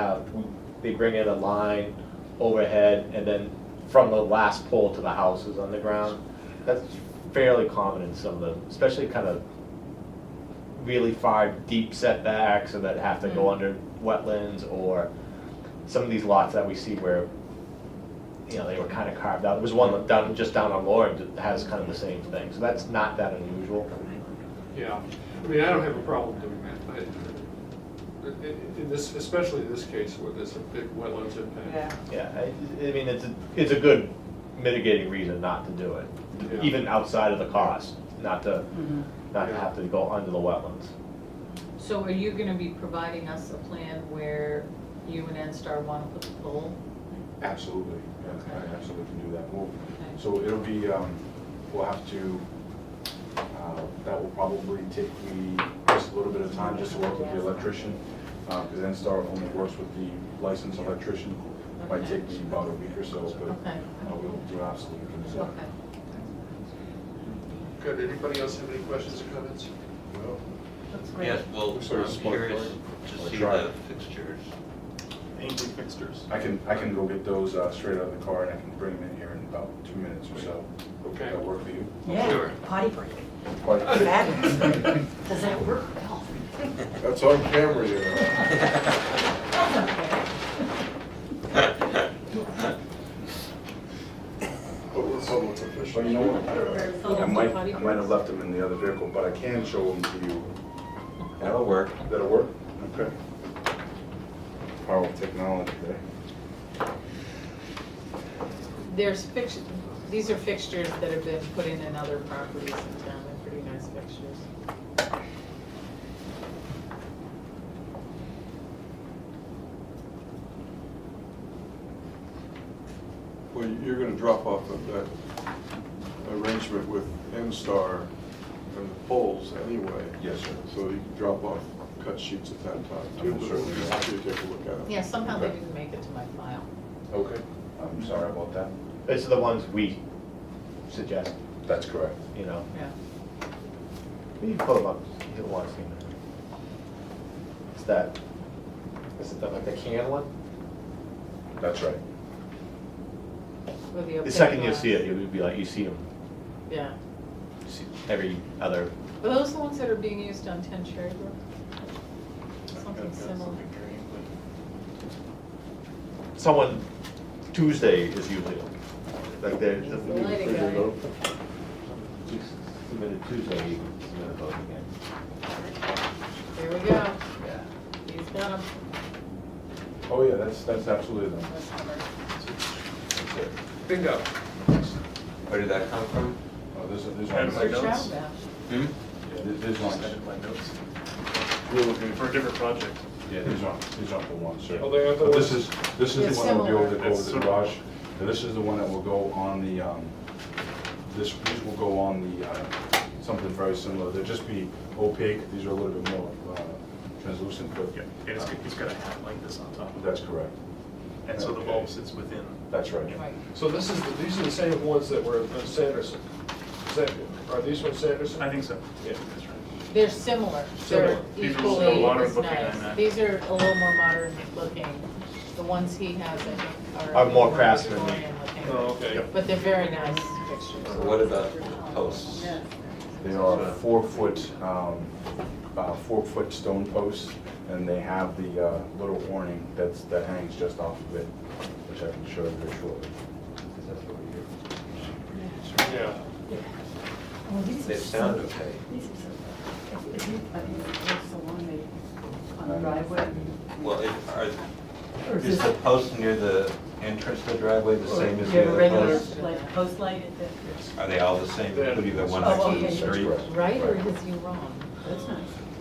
we, Um, they bring in a line overhead and then from the last pole to the house is underground. That's fairly common in some of the, especially kind of really far deep setbacks or that have to go Mm. under wetlands or some of these lots that we see where, you know, they were kind of carved out. There was one down, just down on Lord that has kind of the same thing, so that's not that unusual. Yeah, I mean, I don't have a problem doing that. I- Uh, in- in- In this, especially in this case where there's a big wetlands Yeah. impact. Yeah, I, I mean, it's, a- it's a good mitigating reason not to do it, Yeah. even outside of the cost, not to, Mm-hmm. Mhm. not to have to go under the wetlands. So are you gonna be providing us a plan where you and NSTAR wanna put the pole? Absolutely, yeah, I absolutely can do that move. Okay. So it'll be, um, we'll have to, uh, that will probably take me just a little bit of time just to work with the electrician, uh, because NSTAR only works with the licensed electrician. Might Okay. take me about a week or so, but Okay. uh, we'll do absolutely can do that. Okay. Good, anybody else have any questions or comments? That's Yes, well, Looks like a I'm smart curious plug. to I'll see try the it. fixtures. I can, I can go get those uh, straight out of the car and I can bring them in here in about two minutes or so. Okay. That work for you? Oh, Yeah, Sure. potty break. Quite- Fabulous. Does that work, Bill? That's on camera, you know. That's okay. But we're public officials. Well, you know what? I might, I might have left them in the other vehicle, but I can show them to you. That'll work. That'll work? Okay. Power of technology, eh? There's fixtures, these are fixtures that have been put in in other properties in town, they're pretty nice fixtures. Well, you're gonna drop off of that arrangement with N-Star and the polls anyway. Yes, sir. So you can drop off cut sheets at that time, too, I'm but sure. we'll be happy to take a look at them. Yeah, somehow they Okay. didn't make it to my file. Okay. I'm sorry about that. These are the ones we suggest, That's correct. you know, Yeah. you can pull them up, you'll want to see them. It's that, is it the- like the can one? That's right. With the The opaque second you glass. see it, you'll be like, you see them, Yeah. see every other, Are those the ones that are being used on Ten Cherry Brook? Something similar. someone, Tuesday is usually, like, they're. He's the lighting guy. Submitted Tuesday, you can submit a vote again. There we go. Yeah. He's got them. Oh, yeah, that's, that's absolutely them. That's it. Bingo. Where did that come from? Oh, there's, there's. Had my notes. Hmm? Yeah, there- There's one. Edit my notes We're looking for a different project. Yeah, these aren't, these aren't the ones, sir. Oh, they aren't the But ones? This is, this is They're the one that will go over the- similar. over the garage, and this is the one that will go on the, um, this, these will go on the, uh, something very similar, they'll just be opaque, these are a little bit more uh, translucent, but. Yeah, and it's, it's got a hat like this on top. That's correct, And so the bulb sits within. that's right. Right. So this is, the- these are the same ones that were on Sanderson. Is that- Are these from Sanderson? I think so. Yeah. That's right. They're similar. They're Similar. These are a little equally modern as looking than nice. that. These are a little more modern looking. The ones he has, I think, are. Are more craftsman. Victorian looking. Oh, okay. But they're very nice pictures. So what about posts? They are four-foot, um, uh, four-foot stone posts, and they have the uh, little awning that's, that hangs just off of it, which I can show you very shortly. 'cause that's what we do. Yeah. Well, these are They so- sound okay. These are so, if- if you, I mean, that's the one they, on the driveway. Well, it- are, Or is the post near the entrance to the driveway the same as the Do you have a other regular, posts? like, post light at the, Are they all the same, Yeah. including the one Oh, next to the okay. street? That's correct. Right, or is he wrong? that's nice,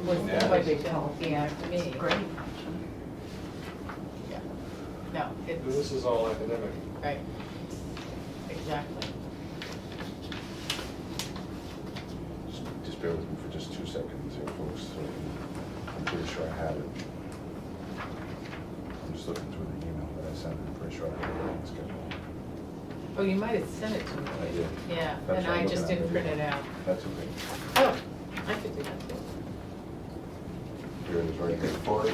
Was Yeah. that my big deal? Yeah, to me. great. Yeah. No, This it's, is all academic. right. Exactly. Just- Just bear with me for just two seconds here, folks. so I can- I'm pretty sure I have it. I'm just looking through the email that I sent, I'm pretty sure I have it on the schedule. Oh, you might have sent it to me. I did. Yeah, That's and what I'm I just looking at didn't right print it now. out. That's okay. Oh, I could do that too. Here it is, right there. For it?